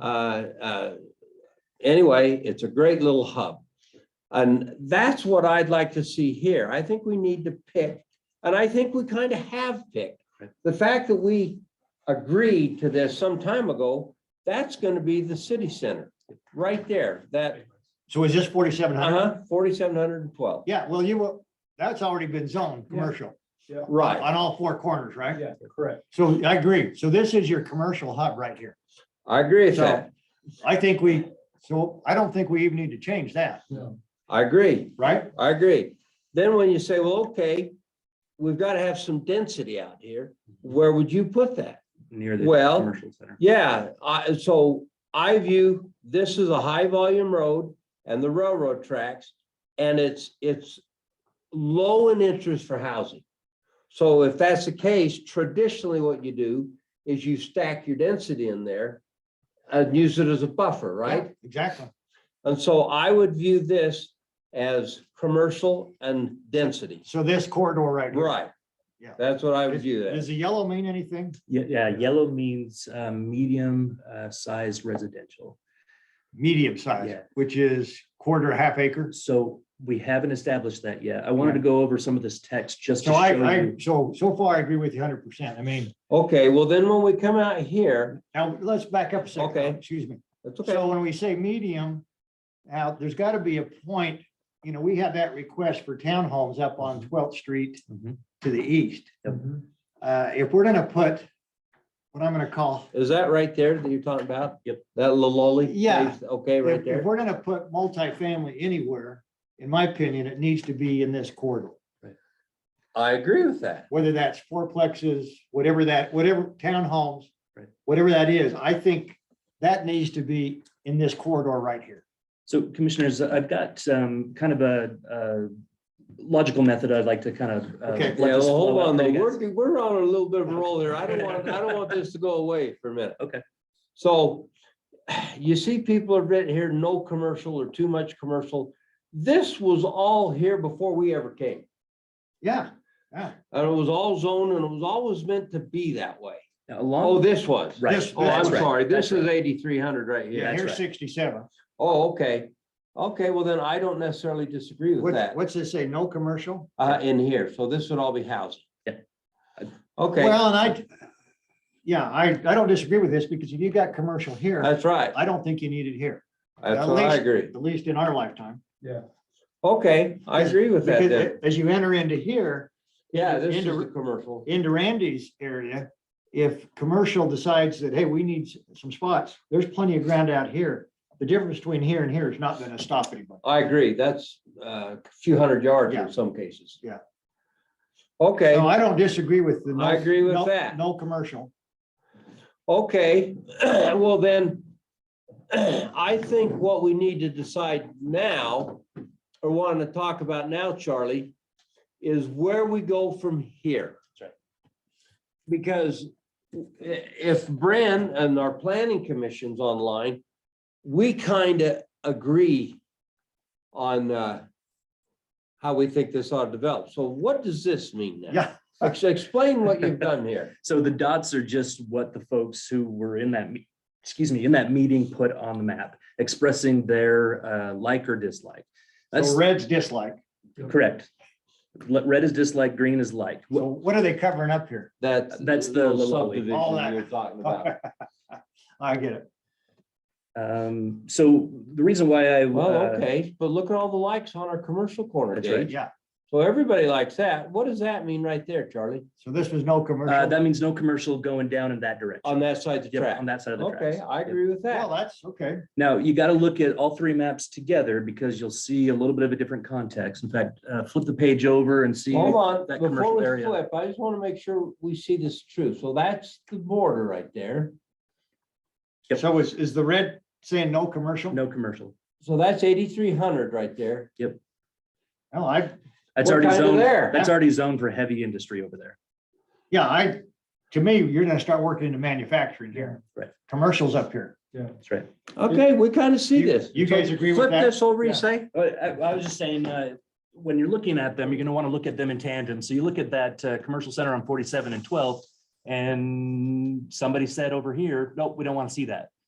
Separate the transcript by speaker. Speaker 1: Uh, uh, Anyway, it's a great little hub. And that's what I'd like to see here. I think we need to pick, and I think we kind of have picked. The fact that we agreed to this some time ago, that's going to be the city center, right there, that,
Speaker 2: So is this forty-seven hundred?
Speaker 1: uh-huh, forty-seven hundred and twelve.
Speaker 2: Yeah, well, you were, that's already been zoned, commercial,
Speaker 1: Right,
Speaker 2: on all four corners, right?
Speaker 3: Yeah, correct.
Speaker 2: So I agree. So this is your commercial hub right here.
Speaker 1: I agree with
Speaker 2: So-
Speaker 1: that.
Speaker 2: I think we, so I don't think we even need to change that,
Speaker 3: No.
Speaker 1: I agree.
Speaker 2: right?
Speaker 1: I agree. Then when you say, well, okay, we've got to have some density out here, where would you put that?
Speaker 4: near the
Speaker 1: Well,
Speaker 4: commercial center.
Speaker 1: Yeah, I, so I view this as a high volume road and the railroad tracks. And it's, it's low in interest for housing. So if that's the case, traditionally what you do is you stack your density in there and use it as a buffer, right?
Speaker 2: Yeah, Exactly.
Speaker 1: And so I would view this as commercial and density.
Speaker 2: So this corridor right here.
Speaker 1: Right.
Speaker 2: Yeah.
Speaker 1: That's what I would
Speaker 2: Does
Speaker 1: view that.
Speaker 2: does the yellow mean anything?
Speaker 4: Yeah, yeah, yellow means uh, medium uh, sized residential.
Speaker 2: Medium size,
Speaker 4: Yeah.
Speaker 2: which is quarter, half acre.
Speaker 4: So we haven't established that yet. I wanted to go over some of this text just to
Speaker 2: So I,
Speaker 4: show
Speaker 2: I,
Speaker 4: you.
Speaker 2: so, so far I agree with you hundred percent. I mean,
Speaker 1: Okay, well then when we come out here,
Speaker 2: now let's back up a second.
Speaker 1: Okay.
Speaker 2: Excuse me.
Speaker 1: that's okay.
Speaker 2: So when we say medium, now there's got to be a point, you know, we had that request for townhomes up on Twelfth Street
Speaker 4: Mhm.
Speaker 2: to the east.
Speaker 4: Yep.
Speaker 1: Mm-hmm.
Speaker 2: Uh, if we're gonna put what I'm gonna call,
Speaker 1: Is that right there that you're talking about?
Speaker 4: Yep.
Speaker 1: That little lolly?
Speaker 2: Yeah.
Speaker 1: place? Okay, right
Speaker 2: if, if
Speaker 1: there.
Speaker 2: we're gonna put multifamily anywhere, in my opinion, it needs to be in this corridor.
Speaker 1: I agree with that.
Speaker 2: Whether that's fourplexes, whatever that, whatever townhomes,
Speaker 4: Right.
Speaker 2: whatever that is, I think that needs to be in this corridor right here.
Speaker 4: So commissioners, I've got um, kind of a, a logical method I'd like to kind of. uh,
Speaker 2: Okay.
Speaker 4: let
Speaker 1: Yeah, well,
Speaker 4: this
Speaker 1: hold
Speaker 4: flow out
Speaker 1: on
Speaker 4: for
Speaker 1: though.
Speaker 4: you guys.
Speaker 1: We're, we're on a little bit of a roll there. I don't want, I don't want this to go away for a minute.
Speaker 4: Okay.
Speaker 1: So you see people have written here, no commercial or too much commercial. This was all here before we ever came.
Speaker 2: Yeah,
Speaker 1: And it was all zoned and it was always meant to be that way.
Speaker 4: Now,
Speaker 1: Oh,
Speaker 4: Along,
Speaker 1: this was.
Speaker 4: right.
Speaker 2: this-
Speaker 1: Oh, I'm
Speaker 4: that's right,
Speaker 1: sorry. This
Speaker 4: that's
Speaker 1: is eighty-three hundred right
Speaker 2: yeah,
Speaker 1: here.
Speaker 2: here's
Speaker 4: right.
Speaker 2: sixty-seven.
Speaker 1: Oh, okay. Okay, well then I don't necessarily disagree with
Speaker 2: What's,
Speaker 1: that,
Speaker 2: what's this say? No commercial?
Speaker 1: uh, in here. So this would all be housing.
Speaker 4: Yeah.
Speaker 1: Okay,
Speaker 2: Well, and I, yeah, I, I don't disagree with this because if you got commercial here,
Speaker 1: that's right.
Speaker 2: I don't think you need it here,
Speaker 1: That's what I
Speaker 2: least-
Speaker 1: agree.
Speaker 2: at least in our lifetime.
Speaker 1: Okay, I agree with that
Speaker 2: Because
Speaker 1: then.
Speaker 2: as you enter into here,
Speaker 1: Yeah, this is
Speaker 2: into-
Speaker 1: the commercial.
Speaker 2: into Randy's area, if commercial decides that, hey, we need s- some spots, there's plenty of ground out here. The difference between here and here is not gonna stop anybody.
Speaker 1: I agree. That's uh, a few hundred yards
Speaker 2: Yeah.
Speaker 1: in some cases.
Speaker 2: Yeah.
Speaker 1: Okay.
Speaker 2: No, I don't disagree with the. no-
Speaker 1: I agree with
Speaker 2: no-
Speaker 1: that.
Speaker 2: No commercial.
Speaker 1: Okay, well then, I think what we need to decide now, or want to talk about now, Charlie, is where we go from here.
Speaker 4: That's right.
Speaker 1: Because i- if Bren and our planning commission's online, we kind of agree on uh, how we think this ought to develop. So what does this mean now?
Speaker 2: Yeah.
Speaker 1: Ex- Explain what you've done here.
Speaker 4: So the dots are just what the folks who were in that, me- excuse me, in that meeting put on the map, expressing their uh, like or dislike. That's
Speaker 2: So red's dislike.
Speaker 4: correct. Le- Red is dislike, green is like.
Speaker 2: So what are they covering up here?
Speaker 1: That's.
Speaker 4: That's the
Speaker 1: little
Speaker 4: little-
Speaker 1: subdivision
Speaker 2: all that.
Speaker 1: You're talking about.
Speaker 2: I get it.
Speaker 4: Um, so the reason why I.
Speaker 1: Well,
Speaker 4: uh,
Speaker 1: okay, but look at all the likes on our commercial corner,
Speaker 4: That's right.
Speaker 1: Dave.
Speaker 2: Yeah.
Speaker 1: So everybody likes that. What does that mean right there, Charlie?
Speaker 2: So this was no
Speaker 4: Uh,
Speaker 2: commercial.
Speaker 4: that means no commercial going down in that direction.
Speaker 1: On that side of the
Speaker 4: Yep,
Speaker 1: track?
Speaker 4: On that side of the tracks.
Speaker 1: Okay, I
Speaker 4: Yep.
Speaker 1: agree with
Speaker 2: Well,
Speaker 1: that.
Speaker 2: that's okay.
Speaker 4: Now, you got to look at all three maps together because you'll see a little bit of a different context. In fact, uh, flip the page over and see.
Speaker 1: Hold on,
Speaker 4: that
Speaker 1: before
Speaker 4: commercial
Speaker 1: we
Speaker 4: area.
Speaker 1: flip, I just want to make sure we see this true. So that's the border right there.
Speaker 4: Yep.
Speaker 2: So is, is the red saying no commercial?
Speaker 4: No commercial.
Speaker 1: So that's eighty-three hundred right there.
Speaker 2: No, I,
Speaker 4: That's
Speaker 1: We're
Speaker 4: already
Speaker 1: kinda
Speaker 4: zoned.
Speaker 1: there.
Speaker 4: That's already zoned for heavy industry over there.
Speaker 2: yeah, I, to me, you're gonna start working into manufacturing here.
Speaker 4: Right.
Speaker 2: Commercials up here.
Speaker 4: That's right.
Speaker 1: Okay, we kind of see
Speaker 2: You-
Speaker 1: this.
Speaker 2: you
Speaker 1: So
Speaker 2: guys agree with that?
Speaker 1: Flip this over, you
Speaker 2: Yeah.
Speaker 1: say?
Speaker 4: I, I was just saying, uh, when you're looking at them, you're going to want to look at them in tandem. So you look at that, uh, commercial center on forty-seven and twelve. And somebody said over here, nope, we don't want to see that.